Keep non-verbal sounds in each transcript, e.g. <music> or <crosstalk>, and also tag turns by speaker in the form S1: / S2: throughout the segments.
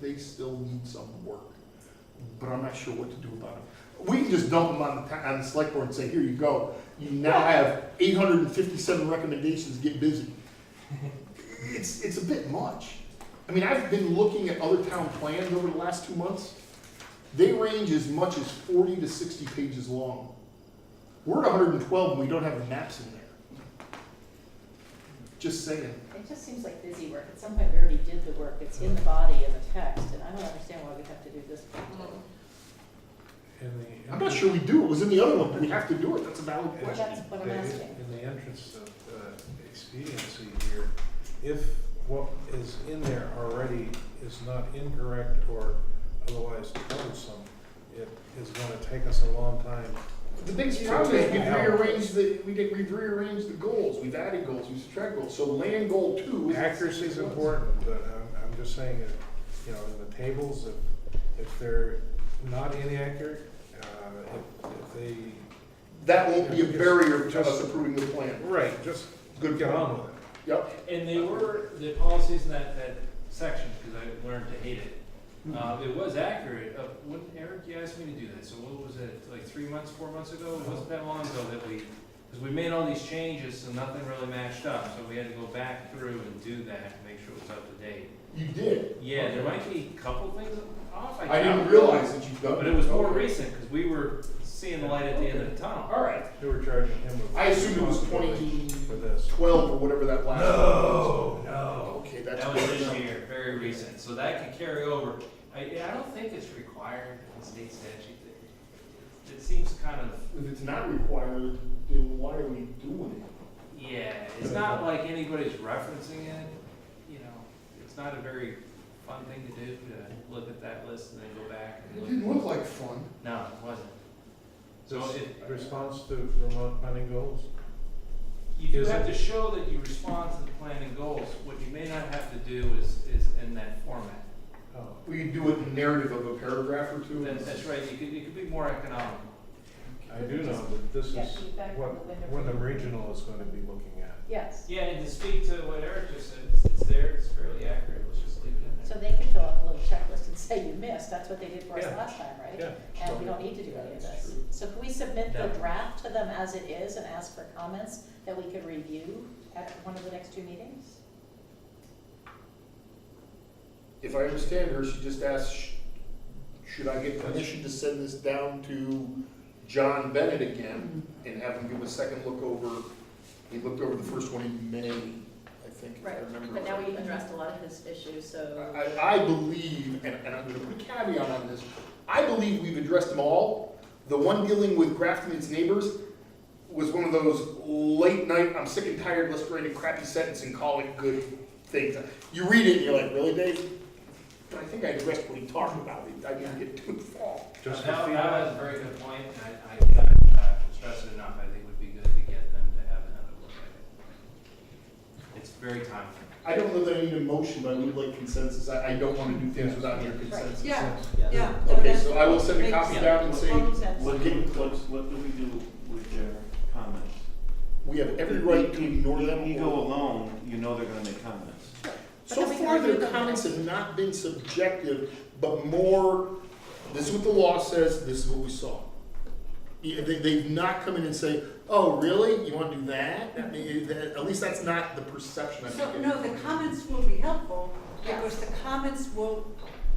S1: they still need some work, but I'm not sure what to do about it. We can just dump them on the, ta- on the select board and say, here you go, you now have eight hundred and fifty-seven recommendations, get busy. It's, it's a bit much. I mean, I've been looking at other town plans over the last two months. They range as much as forty to sixty pages long. We're at hundred and twelve, and we don't have maps in there. Just saying.
S2: It just seems like busy work. At some point, we already did the work. It's in the body and the text, and I don't understand why we have to do this part
S3: Mm.
S2: too.
S4: In the.
S1: I'm not sure we do, it was in the other one, we have to do it, that's a valid
S4: in-
S1: question.
S2: That's what I'm
S4: the-
S2: asking.
S4: In the entrance of uh, expediency here, if what is in there already is not incorrect or otherwise troublesome, it is gonna take us a long time.
S1: The biggest
S4: Yeah.
S1: problem is we've
S4: Yeah.
S1: rearranged the, we did, we've rearranged the goals, we've added goals, we've subtracted goals, so land goal two is.
S4: Accuracy is important, but I'm, I'm just saying that, you know, in the tables, if, if they're not inaccurate, uh, if, if they,
S1: That won't be a barrier to us
S4: Just-
S1: approving the plan.
S4: right, just
S1: Good
S4: get on with it.
S1: Yep,
S5: And they were, the policies in that, that section, because I learned to hate it,
S1: Mm-hmm.
S5: uh, it was accurate, uh, when, Eric, you asked me to do that, so what was it, like three months, four months ago? It wasn't that long ago that we, because we made all these changes, so nothing really matched up, so we had to go back through and do that, to make sure it was up to date.
S1: you did.
S5: Yeah, there might be a couple things off, I
S1: I didn't
S5: doubt.
S1: realize that you've done.
S5: But it was more recent, because we were seeing the light at the end of the tunnel.
S1: All right,
S4: They were charging him with.
S1: I assumed it was
S4: For
S1: 2012
S4: this.
S1: or whatever that last. one was.
S5: no.
S1: Okay, that's.
S5: That was
S1: good
S5: this
S1: enough.
S5: year, very recent, so that could carry over. I, I don't think it's required in state statute. It- It seems kind of,
S1: If it's not required, then why are we doing
S5: yeah, it's not like anybody's referencing it, you know? It's not a very fun thing to do, to look at that list and then go back
S1: it? It
S5: and
S1: didn't
S5: look.
S1: look like fun.
S5: No, it wasn't. So it,
S4: Response to Vermont planning goals?
S5: you do
S4: Is
S5: have
S4: it-
S5: to show that you respond to the plan and goals. What you may not have to do is, is in that format.
S4: Oh,
S1: We could do it in narrative of a paragraph or two.
S5: That's, that's right, you could, you could be more economical.
S4: I do know that this
S2: Get
S4: is
S2: feedback
S4: what,
S2: from the window
S4: what the
S2: people.
S4: regional is gonna be looking at.
S2: Yes,
S5: Yeah, and to speak to what Eric just said, it's- it's there, it's fairly accurate, let's just leave it in
S2: so
S5: there.
S2: they could fill out a little checklist and <laughs> say you missed, that's what they did for us
S4: Yeah.
S2: last time, right?
S4: Yeah.
S2: And we don't need to do any of
S1: That's
S2: this.
S1: true.
S2: So can we submit the
S5: No.
S2: draft to them as it is and ask for comments that we could review at one of the next two meetings?
S1: If I understand her, she just asked, sh- should I get permission to send this down to John Bennett again and have him give a second look over? He looked over the first one in May, I think, if I
S3: Right,
S1: remember.
S3: but now
S1: right.
S3: we've addressed a lot of his issues, so.
S1: I, I believe, and, and I'm gonna put a caveat on this, I believe we've addressed them all. The one dealing with Grafton and its neighbors was one of those late night, I'm sick and tired, let's write a crappy sentence and call it good things. You read it and you're like, really, Dave? But I think I addressed what he talked about, I didn't get too far.
S4: Just the
S5: That, that was a
S4: feedback,
S5: very good point, and I, I cannot uh, stress it enough, I think it would be good to get them to have another look at it. It's very time consuming.
S1: I don't know that I need a motion, but I would like consensus, I, I don't wanna do things without your consensus.
S3: Yeah,
S1: yeah. Okay, so I will send a copy down and say,
S6: What do we, what- what do we do with their comments?
S1: we have every right to ignore
S6: You-
S1: them.
S6: You
S1: or-
S6: go alone, you know they're gonna make comments.
S1: So
S3: But then we
S1: far,
S3: can
S1: their
S3: read them.
S1: comments have not been subjective, but more, this is what the law says, this is what we saw. Yeah, They, they've not come in and say, oh, really? You want to do that? I mean, that- at least that's not the perception I'm
S7: So,
S1: getting.
S7: no, the comments will be helpful,
S3: Yeah.
S7: because the comments will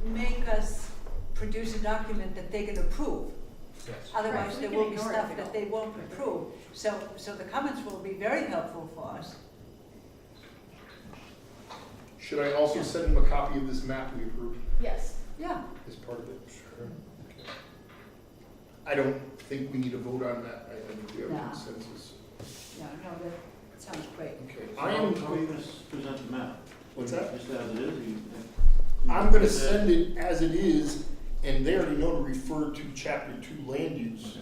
S7: make us produce a document that they can approve.
S4: yes.
S7: Otherwise,
S3: Right.
S7: there
S3: We
S7: will
S3: can
S7: be
S3: ignore it
S7: stuff
S3: if we
S7: that they won't approve. So, so the comments will be very helpful for us.
S1: Should I also send them a copy of this map we approved
S3: Yes.
S7: Yeah.
S1: as part of it? Sure. I don't think we need a vote on that, I think we have
S7: Nah.
S1: consensus.
S7: Yeah, no, that sounds great.
S1: Okay, I
S6: So How are
S1: am,
S6: you gonna s- present the map?
S1: What's that?
S6: Just as it is, or you?
S1: I'm gonna send it as it is, and they already know to refer to chapter two land use.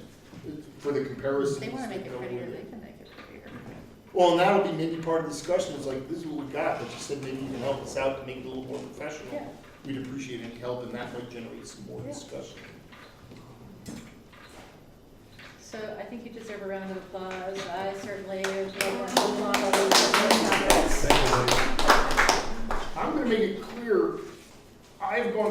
S1: for the comparisons.
S3: They wanna make
S1: that go
S3: it prettier,
S1: with
S3: they
S1: it.
S3: can make it prettier.
S1: Well, and that'll be maybe part of the discussion, it's like, this is what we got, but you said maybe you can help us out to make it a little more
S3: Yeah.
S1: professional. We'd appreciate any help, and that might generate some more
S3: Yeah.
S1: discussion.
S3: So I think you deserve a round of applause. I certainly would want to applaud all those who made comments.
S4: Thank you, ladies.
S1: I'm gonna make it clear, I've gone